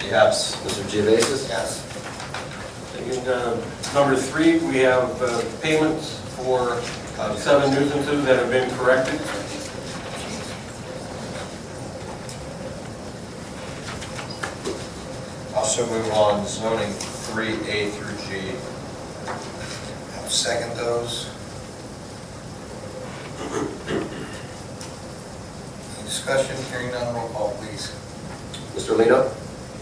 Yes. Mr. Geovasis? Yes. And uh, number three, we have uh, payments for uh, seven nuisances that have been corrected. Also move on zoning three A through G. I'll second those. Any discussion, hearing none, roll call please. Mr. Lino?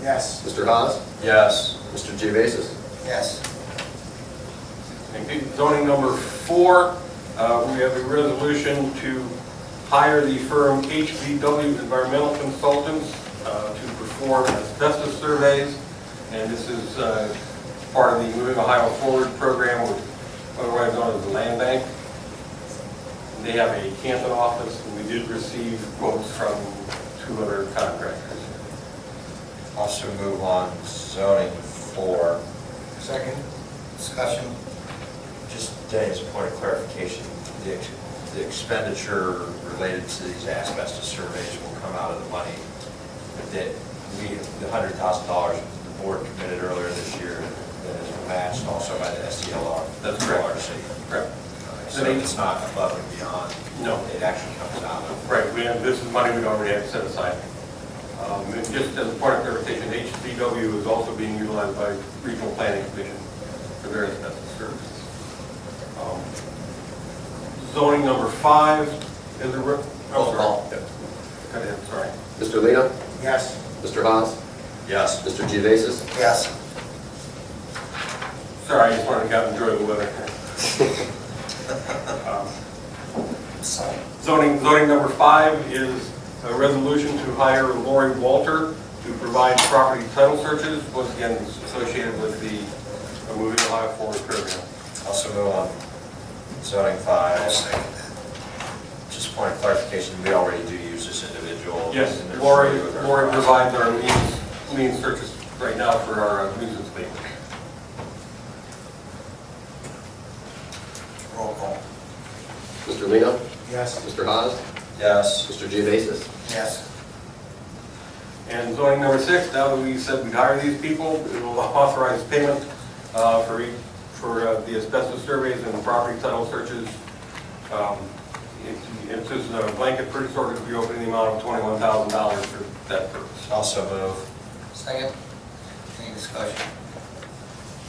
Yes. Mr. Haas? Yes. Mr. Geovasis? Yes. And Zoning number four, uh, we have a resolution to hire the firm HBW Environmental Consultants uh, to perform asbestos surveys. And this is uh, part of the Moving Ohio Forward program, which otherwise known as the Land Bank. They have a Canton office, and we did receive quotes from two other contractors. Also move on zoning four. Second? Discussion? Just, Danny, as a point of clarification, the ex- the expenditure related to these asbestos surveys will come out of the money that we, the hundred thousand dollars the board committed earlier this year that is matched also by the SDLR. That's correct. LRC. Correct. So it's not above and beyond. No. It actually comes out of. Right, we have, this is money we already have set aside. Um, and Just as a part of clarification, HCW is also being utilized by Regional Planning Commission for their asbestos services. Um, Zoning number five is a... re- Roll call. oh, sorry. Yeah. Go ahead, sorry. Mr. Lino? Yes. Mr. Haas? Yes. Mr. Geovasis? Yes. Sorry, I just wanted to go out and enjoy the weather. Um, Zoning, zoning number five is a resolution to hire Lori Walter to provide property title searches, once again associated with the uh, Moving Ohio Forward program. Also move on zoning five. Just point of clarification, we already do use this individual. Yes, and there's- Lori, Lori provides our liens, lien searches right now for our uh, nuisance lien. Roll call. Mr. Lino? Yes. Mr. Haas? Yes. Mr. Geovasis? Yes. And zoning number six, now that we said we'd hire these people, it will authorize payment uh, for, each- for uh, the asbestos surveys and property title searches. Um, it's- It's just a uh, blanket purchase order to be open in the amount of $21,000 for that purpose. Also move. Second, any discussion?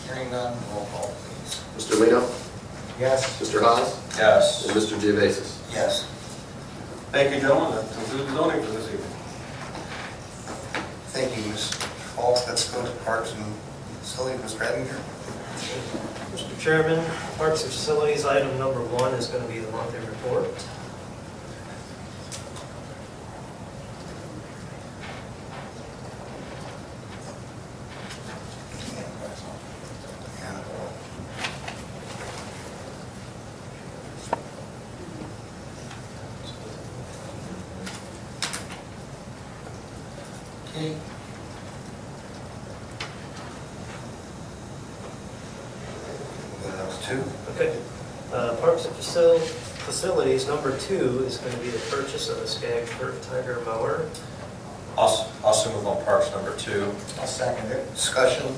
Hearing none, roll call please. Mr. Lino? Yes. Mr. Haas? Yes. And Mr. Geovasis? Yes. Thank you, gentlemen, that concludes zoning for this evening. Thank you, Ms. Falls. Let's go to Parks and Facilities, Mr. Edinger. Mr. Chairman, Parks and Facilities, item number one is going to be the monthly report. uh, Okay. That was two. Okay. Uh, Parks and Facil- Facilities, number two is going to be the purchase of a Skag Kurt Tiger mower. Also, also move on parks number two. I'll second it. Discussion,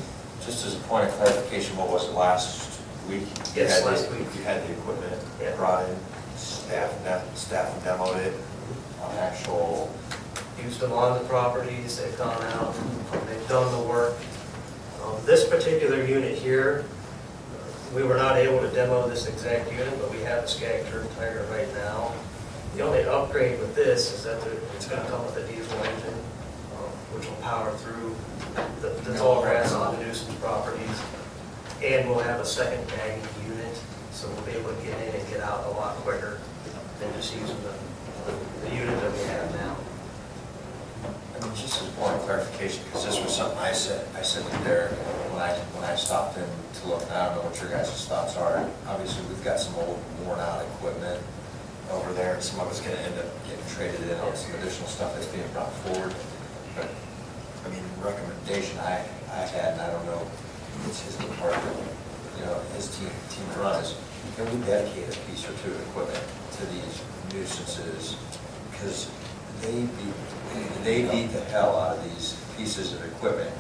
Just as a point of clarification, what was it last week? You Yes, had the- last week. You had the equipment Yeah. brought in, staff, ne- staff demoed it on actual, Used them on the properties, they've gone out, um, they've done the work. Um, This particular unit here, we were not able to demo this exact unit, but we have a Skag Kurt Tiger right now. The only upgrade with this is that there- it's going to come with a diesel engine, um, which will power through the the tall grass on the nuisance properties. And we'll have a second bagging unit, so we'll be able to get in and get out a lot quicker than just using the, the unit that we have now. I mean, just as a point of clarification, because this was something I said, I said to Derek when I, when I stopped in to look, and I don't know what your guys' thoughts are. Obviously, we've got some old worn out equipment over there, and some of it's gonna end up getting traded in on some additional stuff that's being brought forward. But, I mean, recommendation I, I had, and I don't know, if it's his department, you know, his team, team runs, can we dedicate a piece or two of equipment to these nuisances? Because they beat, they beat the hell out of these pieces of equipment.